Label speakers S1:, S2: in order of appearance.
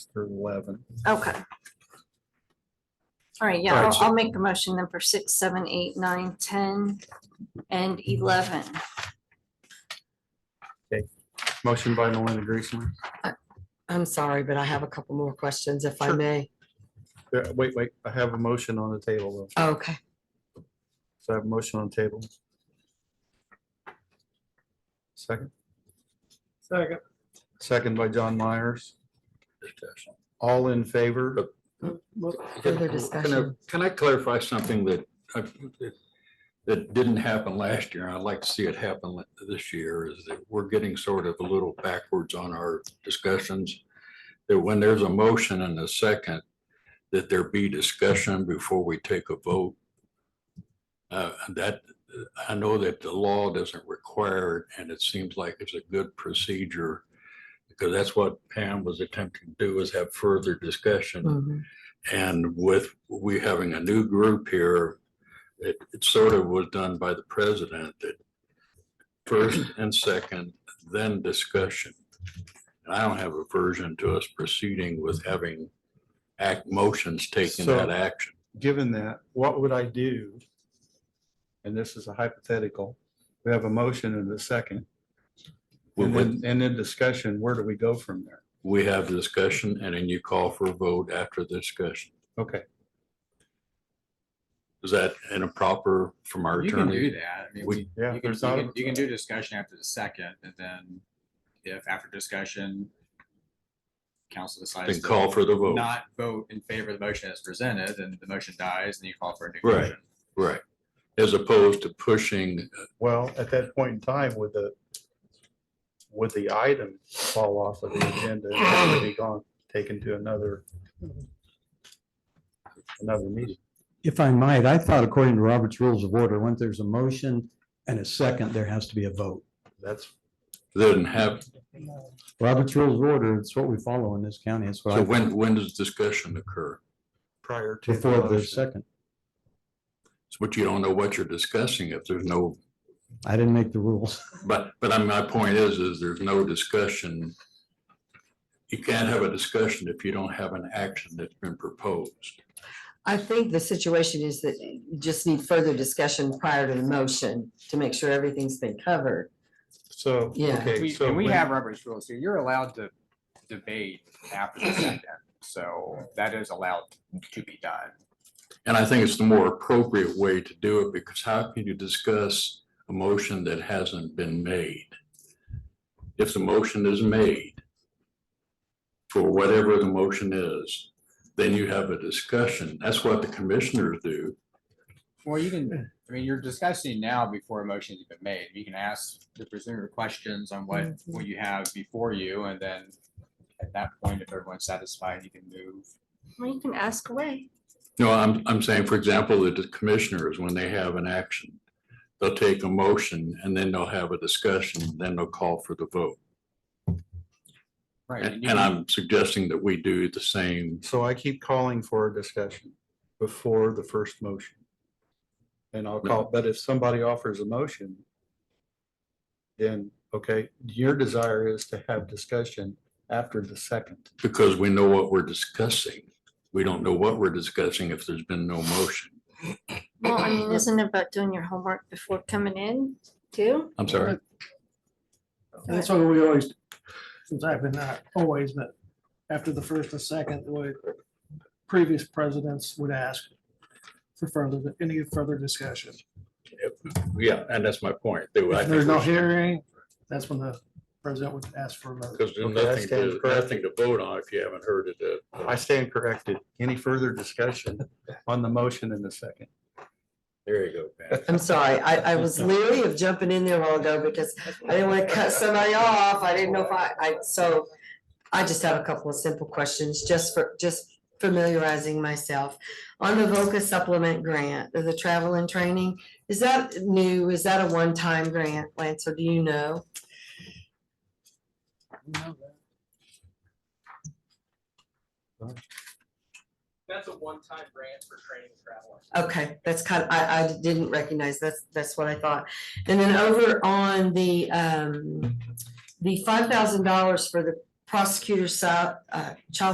S1: through eleven.
S2: Okay. All right, yeah,
S1: All right,
S2: I'll,
S1: so-
S2: I'll make the motion then for six, seven, eight, nine, ten, and eleven.
S1: Motion by Melinda Griezmann.
S3: I'm sorry, but I have a couple more questions if I
S1: Sure.
S3: may.
S1: Yeah, Wait, wait, I have a motion on the table. though.
S3: Okay,
S1: So I have a motion on the table. Second,
S4: Second.
S1: second by John Myers. All in favor?
S3: further
S5: Can I-
S3: discussion.
S5: can I clarify something that, I- that didn't happen last year? and I'd like to see it happen li- this year is that we're getting sort of a little backwards on our discussions. That when there's a motion and a second, that there be discussion before we take a vote. Uh, That, I know that the law doesn't require it, and it seems like it's a good procedure. Because that's what Pam was attempting to do is have further discussion.
S3: Mhm.
S5: And with we having a new group here, it, it sort of was done by the president that first and second, then discussion. And I don't have aversion to us proceeding with having act motions taking
S1: So-
S5: that action.
S1: Given that, what would I do? And this is a hypothetical. We have a motion and a second. And
S5: We,
S1: then, and then discussion, where do we go from there?
S5: we have discussion and then you call for a vote after the discussion.
S1: Okay,
S5: Is that improper from our
S4: You can
S5: attorney?
S4: do that. I mean,
S5: We-
S4: we-
S1: yeah,
S4: you can, you
S1: there's not
S4: can,
S1: a-
S4: you can do discussion after the second, and then if after discussion, council decides.
S5: Then
S4: to
S5: call for the vote.
S4: Not vote in favor of the motion as presented, and the motion dies, and you call for a new.
S5: Right.
S4: motion.
S5: Right. As opposed to pushing
S1: well, at that point in time, would the, would the item fall off of the agenda and would it be gone, taken to another, another meeting?
S6: If I might, I thought according to Robert's Rules of Order, once there's a motion and a second, there has to be a vote.
S1: That's
S5: doesn't have,
S6: Robert's Rules of Order, it's what we follow in this county. It's what
S5: so
S6: I,
S5: when, when does discussion occur?
S1: prior to.
S6: before the
S1: motion.
S6: second.
S5: It's what you don't know what you're discussing if there's no,
S6: I didn't make the rules.
S5: but, but I mean, my point is, is there's no discussion. You can't have a discussion if you don't have an action that's been proposed.
S3: I think the situation is that you just need further discussion prior to the motion to make sure everything's been covered.
S1: So,
S3: Yeah.
S1: okay,
S4: We,
S1: so.
S4: and we
S1: when-
S4: have Robert's rules here. You're allowed to debate after the second, so that is allowed to be done.
S5: And I think it's the more appropriate way to do it because how can you discuss a motion that hasn't been made? If the motion is made for whatever the motion is, then you have a discussion. That's what the commissioners do.
S4: Well, you can, I mean, you're discussing now before a motion's even made. You can ask the presenter questions on what, what you have before you, and then at that point, if everyone's satisfied, you can move.
S2: Well, you can ask away.
S5: No, I'm, I'm saying, for example, the commissioners, when they have an action, they'll take a motion and then they'll have a discussion, then they'll call for the vote.
S4: Right.
S5: And
S4: you can-
S5: and I'm suggesting that we do the same.
S1: So I keep calling for a discussion before the first motion. And I'll call, but if somebody offers a motion, then, okay, your desire is to have discussion after the second.
S5: Because we know what we're discussing. We don't know what we're discussing if there's been no motion.
S2: Well, I mean, isn't it about doing your homework before coming in too?
S5: I'm sorry.
S7: That's what we always, since I've been not always, but after the first and second, what previous presidents would ask for further, any further discussion.
S5: Yeah, and that's my point. They would- I
S7: If
S5: think
S7: there's no
S5: we should-
S7: hearing, that's when the president would ask for a vote.
S5: Because there's
S1: Okay, I
S5: nothing,
S1: stand
S5: to-
S1: corrected.
S5: nothing to vote on if you haven't heard it. uh,
S1: I stand corrected. Any further discussion on the motion in the second?
S5: There you go, Pam.
S3: I'm sorry, I, I was leery of jumping in there a while ago because I didn't want to cut somebody off. I didn't know if I, I, so I just have a couple of simple questions, just for, just familiarizing myself. On the VOCA supplement grant, the travel and training, is that new? Is that a one-time grant, Lance, or do you know?
S8: That's a one-time grant for training and travel.
S3: Okay, that's kind, of I, I didn't recognize, that's, that's what I thought. And then over on the, um, the five thousand dollars for the prosecutor's, sal- uh, child